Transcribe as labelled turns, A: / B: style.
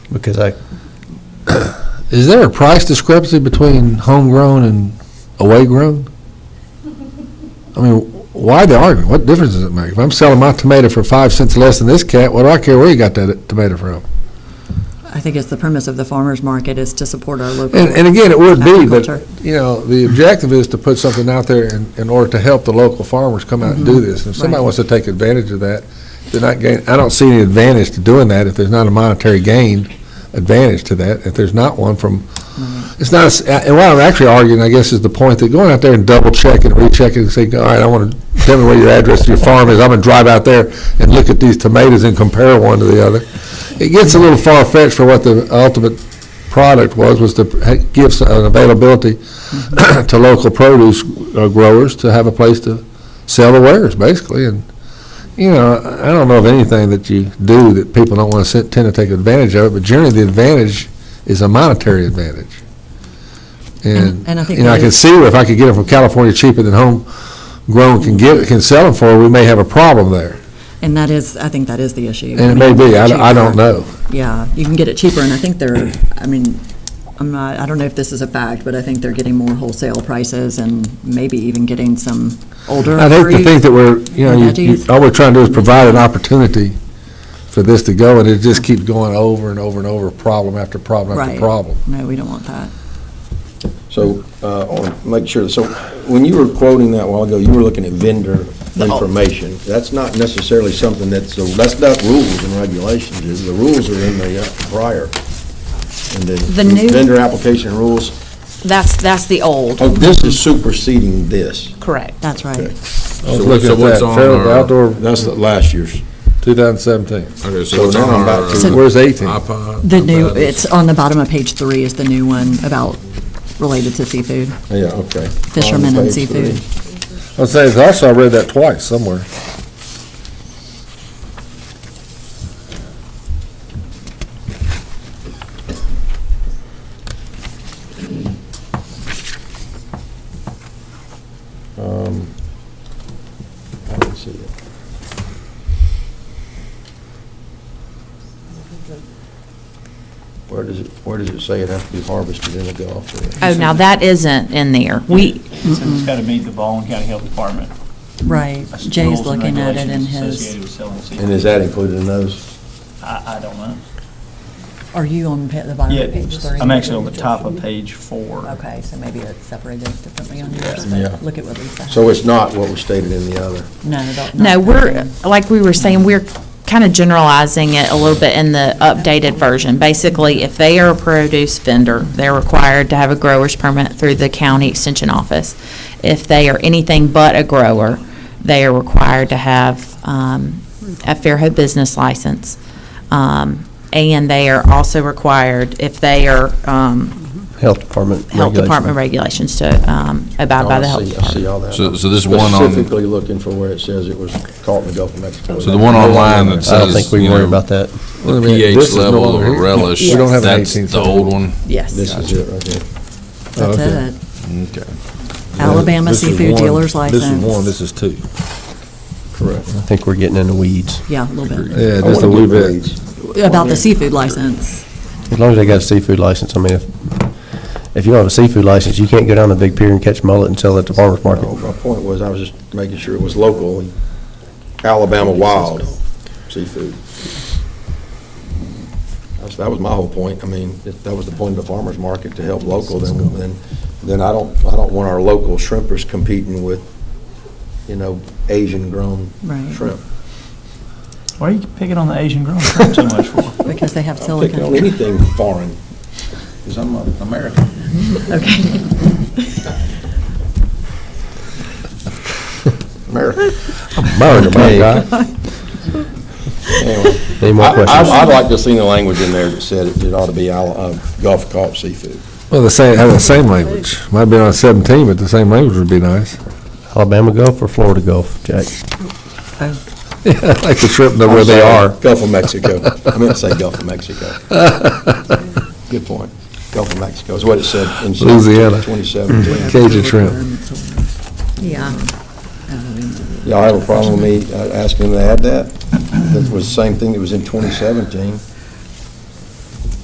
A: because I,
B: Is there a price discrepancy between homegrown and away grown? I mean, why the argument? What difference does it make? If I'm selling my tomato for five cents less than this cat, what do I care where you got that tomato from?
C: I think it's the premise of the farmer's market is to support our local
B: And, and again, it would be,
C: agriculture.
B: but, you know, the objective is to put something out there in, in order to help the local farmers come out and do this. And if somebody
C: Right.
B: wants to take advantage of that, they're not gain, I don't see any advantage to doing that if there's not a monetary gain advantage to that, if there's not one from, it's not, a s- and what I'm actually arguing, I guess, is the point that going out there and double checking, rechecking, and saying, all right, I want to, tell me where your address to your farm is, I'm going to drive out there and look at these tomatoes and compare one to the other. It gets a little far-fetched for what the ultimate product was, was to ha- give s- an availability
C: Mm-hmm.
B: to local produce uh, growers to have a place to sell the wares, basically. And, you know, I I don't know of anything that you do that people don't want to tend to take advantage of, but generally the advantage is a monetary advantage. And,
C: And- and I think
B: you know, I
C: that
B: can
C: is-
B: see where if I could get them from California cheaper than homegrown can get, can sell them for, we may have a problem there.
C: And that is, I think that is the issue.
B: And it may be, I don't- I don't know.
C: Yeah, you can get it cheaper, and I think they're, I mean, I'm not, I don't know if this is a fact, but I think they're getting more wholesale prices and maybe even getting some older
B: I think to
C: fruit.
B: think that we're, you know, you- you-
C: Veggies.
B: all we're trying to do is provide an opportunity for this to go, and it just keeps going over and over and over, problem after problem after
C: Right.
B: problem.
C: No, we don't want that.
D: So, uh, I want to make sure, so when you were quoting that a while ago, you were looking at vendor information. That's not necessarily something that's, so that's not rules and regulations, is the rules are in the uh, prior. And
E: The new-
D: Vendor application rules,
E: That's, that's the old,
D: oh, this is superseding this.
E: correct.
C: That's right.
B: I was
F: So-
B: looking
F: so
B: at
F: what's
B: that,
F: on
B: Fairfield
F: our-
B: outdoor
D: That's the last year's.
B: 2017.
F: Okay,
D: So
F: so it's
D: now
F: on
D: I'm
F: our.
D: back
F: uh,
D: to-
B: Where's 18?
F: iPod?
C: The new, it's on the bottom of page three is the new one about related to seafood,
D: Yeah, okay.
C: fishermen
D: On
C: and
D: page
C: seafood.
D: three.
B: I was saying, also I read that twice somewhere.
D: I don't Um, see it. Where does it, where does it say it has to be harvested in the Gulf?
E: Oh, now that isn't in there. We,
G: So it's got to meet the Baldwin County Health Department.
C: Right.
G: That's the
C: Jay's
G: rules and
C: looking at it in
G: regulations
C: his,
G: Associated with selling seafood.
D: And is that included in those?
G: I, I don't know.
C: are you on pa- the bottom
G: Yeah,
C: of page three?
G: I'm actually on the top of page four.
C: Okay, so maybe it's separated differently on yours,
D: Yeah.
C: but look at what Lisa.
D: So it's not what was stated in the other.
C: No, don't-
E: no,
C: not
E: we're,
C: that
E: like we were saying, we're kind of generalizing it a little bit in the updated version. Basically, if they are a produce vendor, they're required to have a grower's permit through the county extension office. If they are anything but a grower, they are required to have um, a Fairhope business license. Um, And they are also required, if they are um,
A: Health Department
E: Health Department regulations to um, abide by
D: Oh, I
E: the Health
D: see- I see
E: Department.
D: all that.
F: So- so this one on-
D: Specifically looking for where it says it was caught in the Gulf of Mexico.
F: So the one online that
A: I don't
F: says.
A: think we
F: you know,
A: worry about that.
B: Wait a
F: The
B: minute, this
F: pH
B: is no
F: level of
B: longer
F: a
B: here.
F: relish,
B: We don't have an
F: that's
B: 18,
F: the
B: so-
F: old one.
D: This
C: Yes,
D: is it right here.
C: that's
B: Oh, Okay.
C: it.
F: Okay.
C: Alabama
B: This is
C: Seafood
B: one-
C: Dealer's License.
B: This is one, this is two.
D: Correct.
A: I think we're getting in the weeds.
C: Yeah, a little bit.
B: Yeah,
D: I
B: just a
D: wanna
B: wee
D: get
B: bit.
D: reads.
C: About the seafood license.
A: As long as they got a seafood license, I mean, if, if you don't have a seafood license, you can't go down to Big Pier and catch mullet and sell it at the farmer's market.
D: No, My point was, I was just making sure it was local, Alabama wild seafood. That's- That was my whole point. I mean, if that was the point of the farmer's market, to help local, then, then, then I don't, I don't want our local shrimpers competing with, you know, Asian-grown
C: Right.
D: shrimp.
G: Why are you picking on the Asian grown shrimp so much for?
C: Because they have
D: Picking on
C: silicon.
D: anything foreign, because I'm an American.
C: Okay.
D: American.
A: Burn, my God.
D: Anyway,
A: Any more
D: I-
A: questions?
D: I- I'd like to see the language in there that said it ought to be al- uh, Gulf Coast seafood.
B: Well, the same, have the same language. Might be on 17, but the same language would be nice.
A: Alabama Gulf or Florida Gulf, Jack?
B: Like the shrimp know
D: I'm
B: where they
D: sorry,
B: are.
D: Gulf of Mexico. I meant to say Gulf of Mexico. Good point. Gulf of Mexico is what it said in
B: Louisiana.
D: 2017.
B: Cajun shrimp.
C: Yeah.
D: Y'all have a problem with me uh, asking them to add that? That was the same thing that was in 2017.